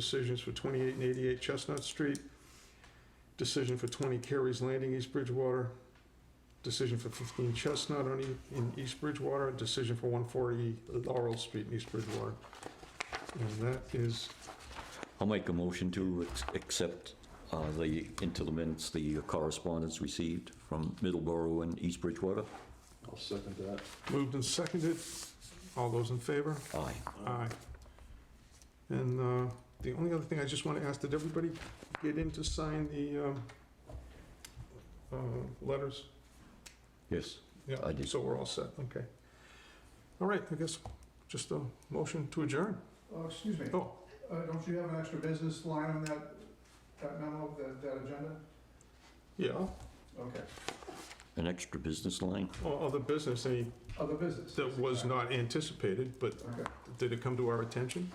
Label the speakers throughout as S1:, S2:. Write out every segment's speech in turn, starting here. S1: Decisions for 28 and 88 Chestnut Street. Decision for 20 Carey's Landing, East Bridgewater. Decision for 15 Chestnut on E- in East Bridgewater. and Decision for 140 Laurel Street in East Bridgewater. And that is,
S2: I'll make a motion to ex- accept uh, the, into the minutes, the correspondence received from Middleborough and East Bridgewater.
S3: I'll second that.
S1: moved and seconded. All those in favor?
S2: Aye.
S1: Aye. And uh, the only other thing I just want to ask, did everybody get in to sign the um, uh, letters?
S2: Yes.
S1: Yeah,
S2: I did.
S1: So we're all set, okay. All right, I guess just a motion to adjourn.
S4: Uh, Excuse me,
S1: Oh,
S4: uh, don't you have an extra business line on that, that memo, that, that agenda?
S1: yeah,
S4: Okay,
S2: An extra business line?
S1: or other business any
S4: other business.
S1: that was not anticipated, but
S4: Okay,
S1: did it come to our attention?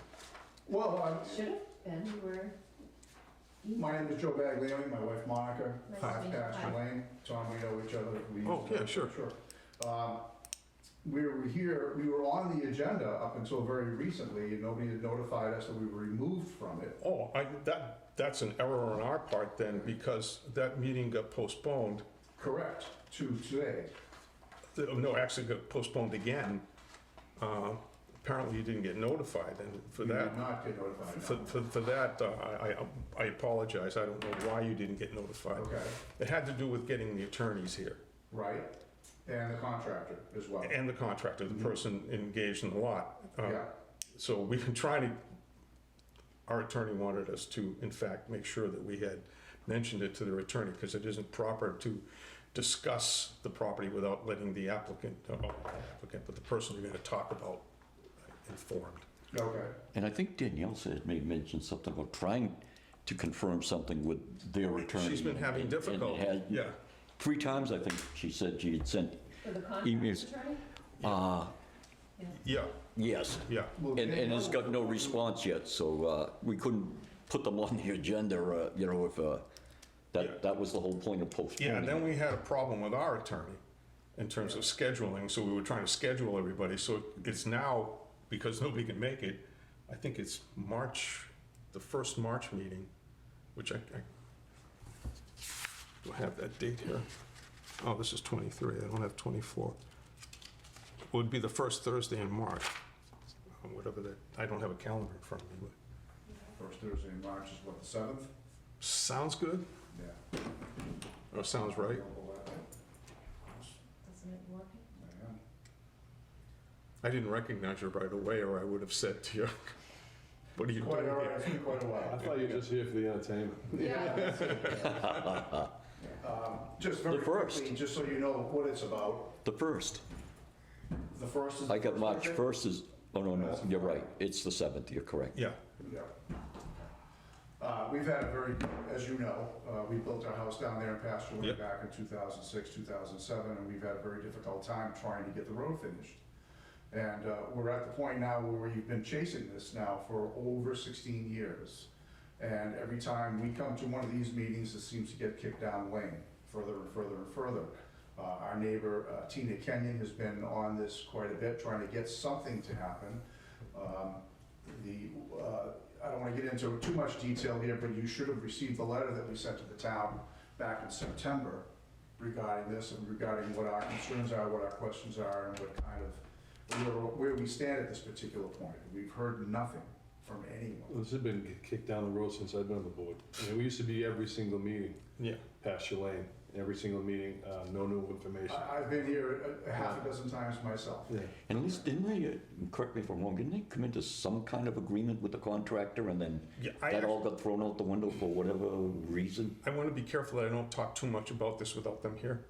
S4: well, I-
S5: Should have been, you were.
S4: my name is Joe Baglioni, my wife Monica,
S5: Nice to
S4: Five
S5: meet you.
S4: Pasture Lane, Tom, we know each other. We used
S1: Oh,
S4: to-
S1: yeah, sure.
S4: Sure. Um, We were here, we were on the agenda up until very recently, and nobody had notified us that we were removed from it.
S1: Oh, I, that, that's an error on our part then, because that meeting got postponed.
S4: Correct, to today.
S1: Uh, No, actually got postponed again. Uh, Apparently you didn't get notified, and for
S4: We did
S1: that,
S4: not get notified.
S1: for, for for that, uh, I, I- I apologize, I don't know why you didn't get notified.
S4: Okay,
S1: It had to do with getting the attorneys here.
S4: right, and the contractor as well.
S1: and the contractor, the person engaged in the lot. Eh, Uh,
S4: Yeah.
S1: So we've been trying to, our attorney wanted us to, in fact, make sure that we had mentioned it to their attorney, because it isn't proper to discuss the property without letting the applicant, uh, applicant, but the person you're gonna talk about informed.
S4: Okay,
S2: And I think Danielle said, may mention something about trying to confirm something with their attorney.
S1: She's been having
S2: and- and it
S1: difficulty,
S2: had-
S1: yeah.
S2: Three times, I think, she said she had sent,
S5: For the contract
S2: Emails.
S5: attorney?
S2: uh,
S1: Yeah,
S2: yes.
S1: yeah.
S2: And, and it's got no response yet, so uh, we couldn't put them on the agenda, uh, you know, if, uh,
S1: Yeah.
S2: that, that was the whole point of postponing.
S1: Yeah, and then we had a problem with our attorney in terms of scheduling, so we were trying to schedule everybody, so it's now, because nobody can make it, I think it's March, the first March meeting, which I, I, do I have that date here? Oh, this is 23, I don't have 24. It Would be the first Thursday in March, or whatever that, I don't have a calendar in front of me, but,
S4: first Thursday in March is what, the seventh?
S1: sounds good,
S4: Yeah.
S1: or sounds right?
S5: Doesn't it work?
S1: I didn't recognize you right away, or I would have said to you, "What are you
S4: Quite
S1: doing
S4: all right,
S1: here?"
S4: it's been quite a
S3: I
S4: while.
S3: thought you were just here for the entertainment.
S5: Yeah.
S4: Just very
S2: The first.
S4: quickly, just so you know what it's about,
S2: The first.
S4: the first is.
S2: I got
S4: the
S2: March
S4: first
S2: 1st is, oh, no, no, you're right, it's the 7th, you're correct.
S1: Yeah,
S4: Thursday? Yeah. Uh, we've had a very, as you know, uh, we built our house down there in Pasture
S1: Yep.
S4: Lake back in two thousand six, two thousand seven, and we've had a very difficult time trying to get the road finished. And, uh, we're at the point now where we've been chasing this now for over sixteen years. And every time we come to one of these meetings, it seems to get kicked down the lane, further and further and further. Uh, Our neighbor uh, Tina Kenyon has been on this quite a bit, trying to get something to happen. Um, The, uh, I don't want to get into too much detail here, but you should have received the letter that we sent to the town back in September regarding this and regarding what our concerns are, what our questions are, and what kind of, where- where we stand at this particular point. We've heard nothing from anyone.
S3: This has been kicked down the road since I've been on the board. I mean, we used to be every single meeting,
S1: yeah.
S3: past your lane, every single meeting, uh, no new information.
S1: Ah.
S4: I- I've been here a a half a dozen times myself.
S3: Yeah.
S2: And at least, didn't they, uh, correct me if I'm wrong, didn't they come into some kind of agreement with the contractor and then
S1: Yeah, I
S2: that all got thrown out the window for whatever reason?
S1: I want to be careful that I don't talk too much about this without them here.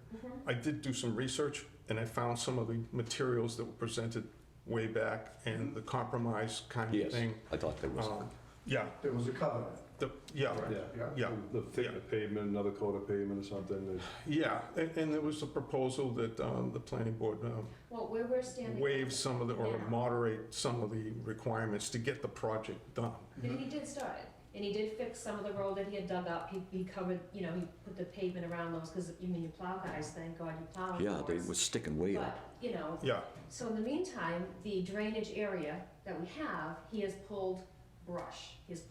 S1: I did do some research, and I found some of the materials that were presented way back, and the compromise kind of
S2: Yes,
S1: thing.
S2: I thought there was.
S1: Um, Yeah,
S4: There was a covenant.
S1: the, yeah,
S3: Yeah.
S1: yeah,
S3: The thick of pavement, another coat of pavement or something.
S1: yeah, and, and there was a proposal that, um, the planning board, um,
S5: Well, where we're standing.
S1: waive some of the, or
S5: Yeah.
S1: moderate some of the requirements to get the project done.
S5: And he did start it, and he did fix some of the road that he had dug up, he, he covered, you know, he put the pavement around those, because, you mean, you plow guys, thank God you plow.
S2: Yeah, they
S5: was.
S2: were sticking way
S5: But,
S2: up.
S5: you know,
S1: Yeah,
S5: so in the meantime, the drainage area that we have, he has pulled brush, he has